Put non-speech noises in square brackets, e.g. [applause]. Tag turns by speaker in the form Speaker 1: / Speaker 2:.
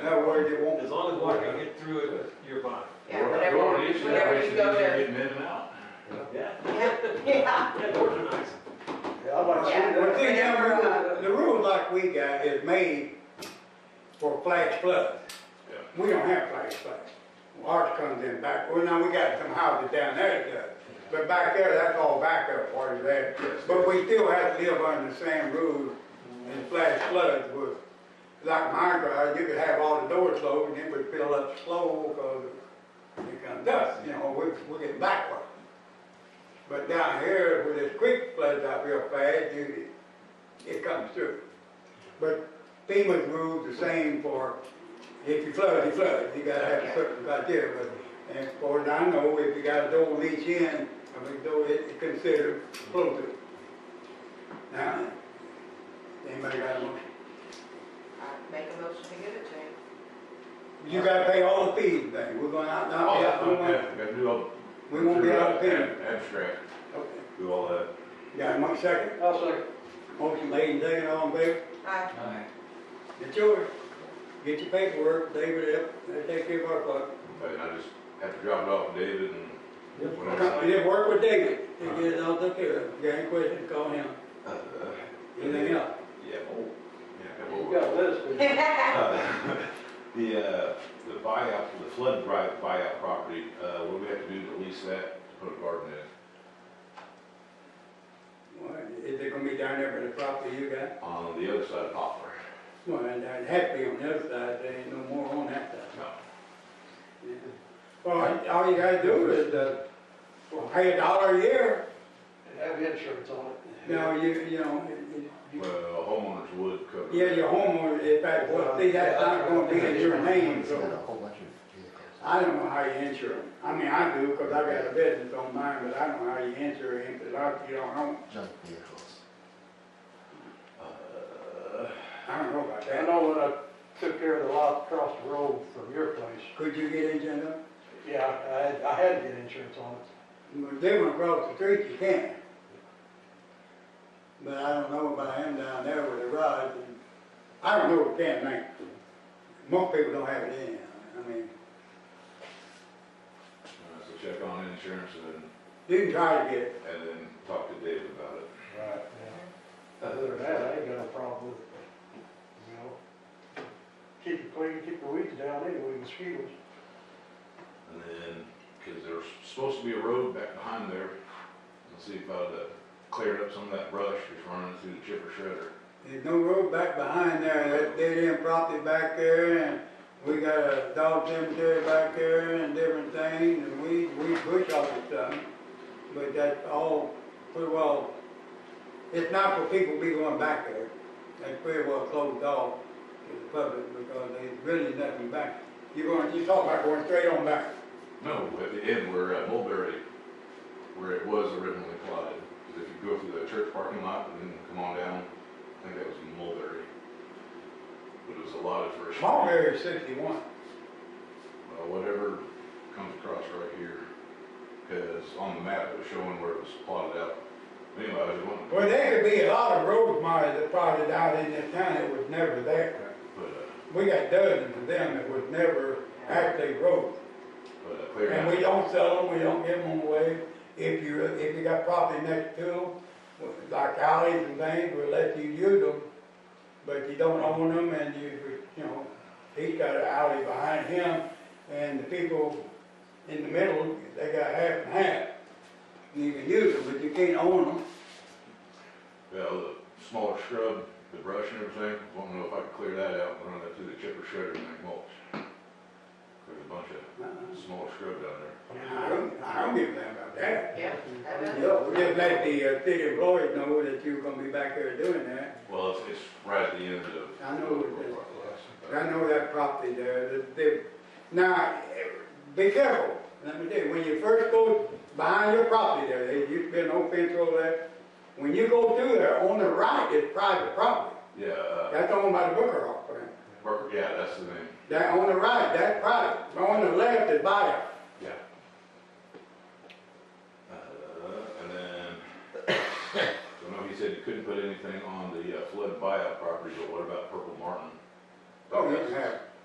Speaker 1: way they want.
Speaker 2: As long as I can get through it, you're fine.
Speaker 3: Yeah,
Speaker 4: Door-
Speaker 3: whenever,
Speaker 4: door is, that
Speaker 3: whenever
Speaker 4: makes
Speaker 3: you
Speaker 4: it
Speaker 3: go
Speaker 4: easier
Speaker 3: to,
Speaker 4: Getting in and out.
Speaker 2: Yeah,
Speaker 3: yeah, [laughs] yeah,
Speaker 2: yeah, doors are nice.
Speaker 1: Yeah, I'd like to see
Speaker 3: Yeah.
Speaker 1: that.
Speaker 5: Well, see, now, the rule- the rule like we got is made for flash flood.
Speaker 4: Yeah.
Speaker 5: We don't have flash flood. Ours comes in back, well, now we got some houses down there that does, but back there, that's all backup part of that. But we still have to live under the same rules and flash floods was, like my garage, you could have all the doors closed and it would fill up slow because it comes dust, you know, we, we get backward. But down here, where this creek floods out real fast, you, it comes through. But FEMA's rules the same for, if you flood, you flood, you gotta have a certain criteria, but, and as far as I know, if you got a door on each end, I mean, though it's considered flow through. Now, anybody got a motion?
Speaker 3: I make a motion to give it to him.
Speaker 5: You gotta pay all the fees, then, we're gonna, not, not,
Speaker 4: Oh, that's
Speaker 5: we
Speaker 4: not
Speaker 5: won't,
Speaker 4: bad. Gotta do all.
Speaker 5: we won't be out of payment.
Speaker 4: Ab- Abstract,
Speaker 5: Okay.
Speaker 4: do all that.
Speaker 5: Got one second?
Speaker 1: I'll second.
Speaker 5: Motion made and seconded, all in favor?
Speaker 3: I,
Speaker 5: It's yours. Get your paperwork, David, up, they take care of our part.
Speaker 4: But I just have to drop it off to David and. when I'm-
Speaker 5: We did work with David, they get it all took care of. If you got any questions, call him.
Speaker 4: Uh,
Speaker 5: Anything else?
Speaker 4: Yeah, oh, yeah.
Speaker 1: You
Speaker 4: well,
Speaker 1: got this, but-
Speaker 4: uh, The, uh, the buyout, the flood buy- buyout property, uh, what do we have to do to lease that, to put a garden in? it?
Speaker 5: Well, Is it gonna be down there by the property you got?
Speaker 4: On the other side of Poplar.
Speaker 5: Well, and it had to be on the other side, there ain't no more on that side.
Speaker 4: No.
Speaker 5: Yeah. Well, all you gotta do is, uh, well, pay a dollar a year,
Speaker 1: and have insurance on it.
Speaker 5: now you, you know, you- you-
Speaker 4: Well, homeowners would cover. it.
Speaker 5: yeah, your homeowner, if that, well, see, that's not gonna be in your name,
Speaker 6: He's got
Speaker 5: so.
Speaker 6: a whole bunch of vehicles.
Speaker 5: I don't know how you insure them. I mean, I do, cause I got a business on mine, but I don't know how you insure him, cause I, you don't own,
Speaker 6: Junk vehicles.
Speaker 4: Uh,
Speaker 5: I don't know about
Speaker 1: I
Speaker 5: that.
Speaker 1: know when I took care of the lot across the road from your place,
Speaker 5: Could you get insurance? on it?
Speaker 1: yeah, I had, I had to get insurance on it.
Speaker 5: Well, They went across the street, you can. But I don't know about him down there with the rod, and I don't know what can make. Most people don't have it in, I mean,
Speaker 4: So check on insurance and
Speaker 5: you can try to get it.
Speaker 4: then, and then talk to David about it.
Speaker 1: Right. Other than that, I ain't got a problem with it, you know? Keep it clean, keep the weeds down anyway, mosquitoes.
Speaker 4: And then, because there's supposed to be a road back behind there, and see if I'd uh, cleared up some of that brush that's running through the chipper shredder.
Speaker 5: There's no road back behind there, that dead end property back there, and we got a dog cemetery back there and different things, and we, we bush all this stuff. But that's all pretty well, it's not for people to be going back there. That's pretty well closed off to the public because there's really nothing back. You're going, you talk about going straight on back.
Speaker 4: No, at the end where uh, Mulberry, where it was originally plotted, 'Cause if you go through the church parking lot and then come on down, I think that was Mulberry. But it was allotted for a. street.
Speaker 5: Small area sixty-one.
Speaker 4: Well, uh, whatever comes across right here, because on the map it was showing where it was plotted out. Anyway, I was wanting to
Speaker 5: Well, there could be a lot of road marks that probably out in this town that was never there.
Speaker 4: put a,
Speaker 5: We got dozens of them that was never actually road.
Speaker 4: put a clear.
Speaker 5: And we don't sell them, we don't give them away. If you, if you got property next to them, like alleys and things, we'll let you use them. But you don't own them and you, you know, he's got an alley behind him and the people in the middle, they got half and half. You can use them, but you can't own them.
Speaker 4: Well, the smaller shrub, the brush and everything, won't know if I can clear that out and run that through the chipper shredder and make mulch. There's a bunch of small shrub down there.
Speaker 5: Uh-uh. I don't, I don't give a damn about that.
Speaker 3: yeah, that does.
Speaker 5: Yeah, we Just let the uh, city employees know that you're gonna be back there doing that.
Speaker 4: Well, it's, it's right at the end of.
Speaker 5: I know what it is. I know that property there, that they, now, eh, be careful, let me tell you, when you first go behind your property there, there used to be an old fence over there. When you go through there, on the right is private property,
Speaker 4: Yeah, uh,
Speaker 5: that's owned by the Booker Hawk family.
Speaker 4: Burke- yeah, that's the name,
Speaker 5: That, on the right, that's private, on the left is buyout.
Speaker 4: yeah. Uh, and then, [coughs] I know he said you couldn't put anything on the uh, flood buyout property, but what about Purple Martin?
Speaker 5: Oh, you can have